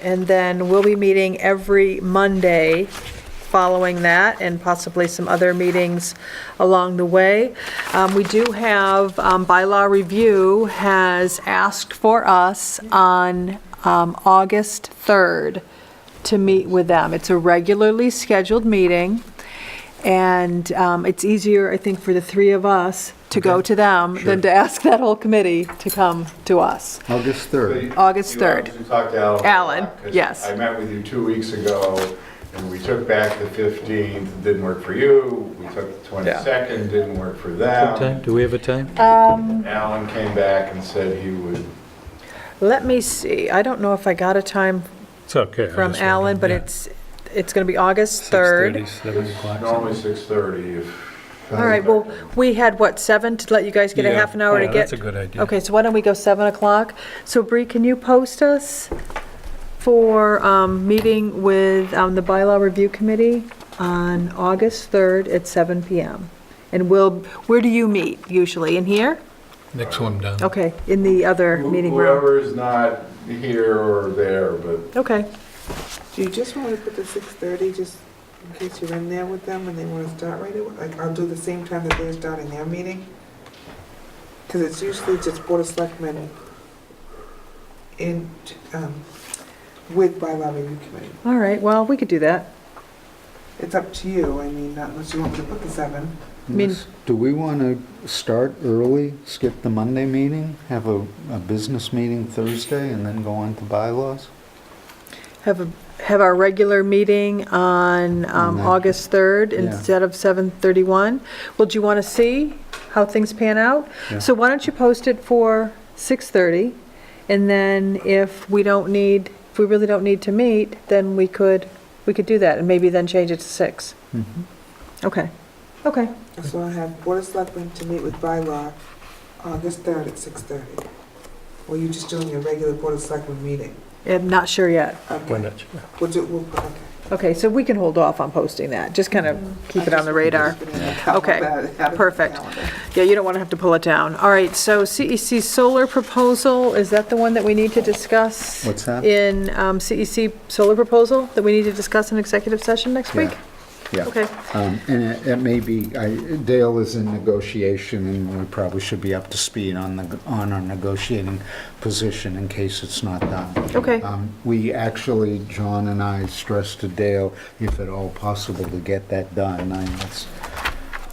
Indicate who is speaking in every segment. Speaker 1: And then we'll be meeting every Monday following that and possibly some other meetings along the way. Um, We do have, um, bylaw review has asked for us on um, August 3rd to meet with them. It's a regularly scheduled meeting, and um, it's easier, I think, for the three of us to go to them than to ask that whole committee to come to us.
Speaker 2: August 3rd.
Speaker 1: August
Speaker 3: You
Speaker 1: 3rd.
Speaker 3: obviously talked to Alan. a
Speaker 1: Alan,
Speaker 3: lot, 'cause
Speaker 1: yes.
Speaker 3: I met with you two weeks ago, and we took back the 15th, didn't work for you. We took the 22nd, didn't work for
Speaker 4: Time,
Speaker 3: them.
Speaker 4: do we have a time?
Speaker 3: Alan came back and said he would,
Speaker 1: Let me see, I don't know if I got a time
Speaker 4: It's okay. I
Speaker 1: from
Speaker 4: just
Speaker 1: Alan,
Speaker 4: wondered,
Speaker 1: but
Speaker 4: yeah.
Speaker 1: it's, it's going to be August
Speaker 4: 6:30,
Speaker 1: 3rd.
Speaker 4: 7 o'clock,
Speaker 3: normally 6:30 if.
Speaker 1: All right, well, we had, what, 7 to let you guys get a
Speaker 4: Yeah.
Speaker 1: half an hour to
Speaker 4: Yeah,
Speaker 1: get?
Speaker 4: that's a good idea.
Speaker 1: Okay, so why don't we go 7 o'clock? So Bree, can you post us for um, meeting with um, the bylaw review committee on August 3rd at 7 PM? And we'll, where do you meet usually? In here?
Speaker 4: Next one down.
Speaker 1: Okay, in the other meeting room?
Speaker 3: Whoever's not here or there, but
Speaker 1: Okay,
Speaker 5: Do you just want me to put the six thirty, just in case you're in there with them and they wanna start right away? Like, I'll do the same time that they're starting their meeting? Cause it's usually just Board of Selectmen in, um, with bylaw review committee.
Speaker 1: all right, well, we could do that.
Speaker 5: It's up to you, I mean, not unless you want me to put the seven.
Speaker 1: mean-
Speaker 2: Do we want to start early, skip the Monday meeting, have a, a business meeting Thursday, and then go on to bylaws?
Speaker 1: Have, a- have our regular meeting on um,
Speaker 2: Mhm.
Speaker 1: August 3rd
Speaker 2: Yeah.
Speaker 1: instead of 7:31. Well, do you want to see how things pan out?
Speaker 2: Yeah.
Speaker 1: So why don't you post it for 6:30? And then if we don't need, if we really don't need to meet, then we could, we could do that and maybe then change it to 6.
Speaker 2: Mhm.
Speaker 1: Okay, okay.
Speaker 5: So I have Board of Selectmen to meet with bylaw August third at six thirty. Or you just doing your regular Board of Selectmen meeting?
Speaker 1: I'm not sure yet.
Speaker 4: Why
Speaker 5: Okay,
Speaker 4: not?
Speaker 5: we'll do, we'll, okay.
Speaker 1: Okay, so we can hold off on posting that, just kind of keep it on the radar. Okay, perfect. Yeah, you don't want to have to pull it down. All right, so CEC solar proposal, is that the one that we need to discuss?
Speaker 2: What's that?
Speaker 1: In um, CEC solar proposal that we need to discuss in executive session next week?
Speaker 2: Yeah.
Speaker 1: Okay.
Speaker 2: Um, And it it may be, I- Dale is in negotiation, and we probably should be up to speed on the, on our negotiating position in case it's not done.
Speaker 1: Okay.
Speaker 2: Um, We actually, John and I stressed to Dale, if at all possible, to get that done. I mean, it's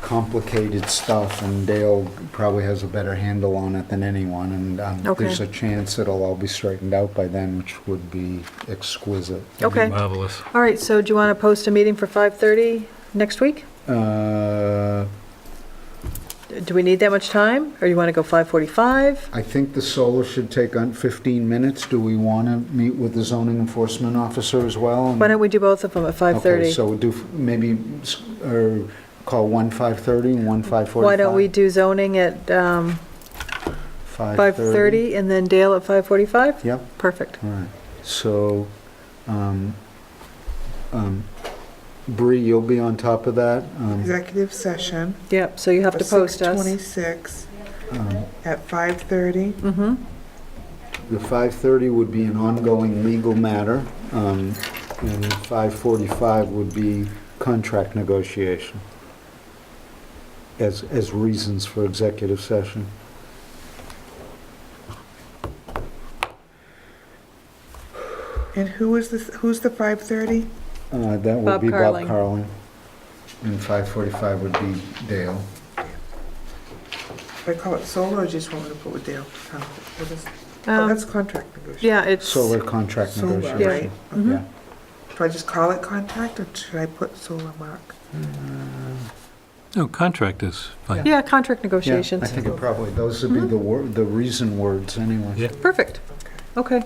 Speaker 2: complicated stuff, and Dale probably has a better handle on it than anyone, and um,
Speaker 1: Okay.
Speaker 2: there's a chance it'll all be straightened out by then, which would be exquisite.
Speaker 1: Okay.
Speaker 4: Marvelous.
Speaker 1: All right, so do you want to post a meeting for 5:30 next week?
Speaker 2: Uh,
Speaker 1: Do we need that much time, or you want to go 5:45?
Speaker 2: I think the solar should take on 15 minutes. Do we want to meet with the zoning enforcement officer as well?
Speaker 1: Why don't we do both of them at
Speaker 2: Okay,
Speaker 1: 5:30?
Speaker 2: so we do, f- maybe, s- or call one 5:30 and one 5:45?
Speaker 1: Why don't we do zoning at um, 5:30 and then Dale at 5:45?
Speaker 2: Yep,
Speaker 1: Perfect.
Speaker 2: all right. So, um, um, Bree, you'll be on top of that? Um,
Speaker 5: Executive session.
Speaker 1: Yep, so you have to post us.
Speaker 5: 26
Speaker 2: um,
Speaker 5: at 5:30.
Speaker 1: Mm-hmm.
Speaker 2: The 5:30 would be an ongoing legal matter, um, and 5:45 would be contract negotiation as, as reasons for executive session.
Speaker 5: And who is this, who's the 5:30?
Speaker 2: Uh,
Speaker 1: Bob
Speaker 2: That would be Bob
Speaker 1: Carling.
Speaker 2: Carlin. And 5:45 would be Dale.
Speaker 5: If I call it solo, or just want me to put with Dale? Oh, what is- Oh,
Speaker 1: Um,
Speaker 5: that's contract negotiation.
Speaker 1: Yeah, it's,
Speaker 2: Solar contract
Speaker 5: Solar,
Speaker 2: negotiation.
Speaker 1: right. Mhm.
Speaker 2: Yeah.
Speaker 5: Do I just call it contract, or should I put solar mark?
Speaker 4: No, contract is fine.
Speaker 1: yeah, contract
Speaker 2: Yeah, I
Speaker 1: negotiations.
Speaker 2: think it probably, those would be the word, the reason words anyway.
Speaker 4: Yeah.
Speaker 1: Perfect. Okay,
Speaker 5: And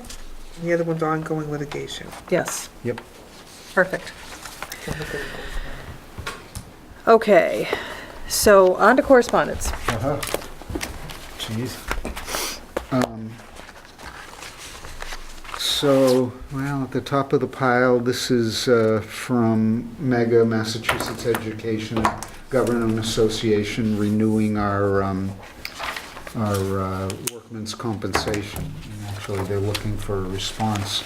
Speaker 5: The other one's ongoing litigation.
Speaker 1: yes.
Speaker 2: Yep.
Speaker 1: Perfect. Okay, so on to correspondence.
Speaker 2: Uh-huh. Jeez. Um, So, well, at the top of the pile, this is uh, from Mega Massachusetts Education Government Association renewing our, um, our uh, workman's compensation. And Actually, they're looking for a response